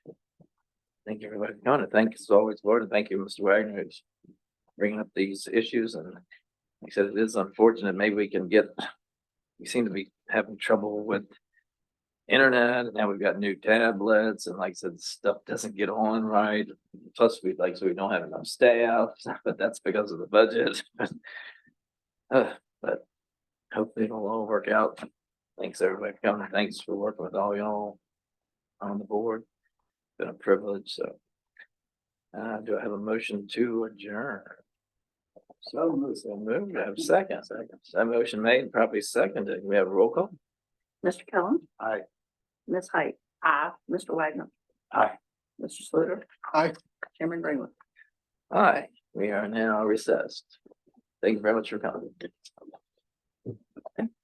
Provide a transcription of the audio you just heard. Thank you, everybody. No, and thank as always, Lord, and thank you, Mr. Wagner, who's bringing up these issues and like I said, it is unfortunate. Maybe we can get, we seem to be having trouble with internet and now we've got new tablets and like I said, stuff doesn't get on right. Plus we like, so we don't have enough staff, but that's because of the budget. Uh, But hopefully it'll all work out. Thanks, everybody, for coming. Thanks for working with all y'all on the board. Been a privilege, so. Uh, do I have a motion to adjourn? So moved. So moved. I have a second. That motion made, probably seconded. We have a roll call? Mr. Kellum. Aye. Ms. Height. Aye. Mr. Wagner. Aye. Mr. Sluter. Aye. Chairman Greenwood. Aye, we are now recessed. Thank you very much for coming.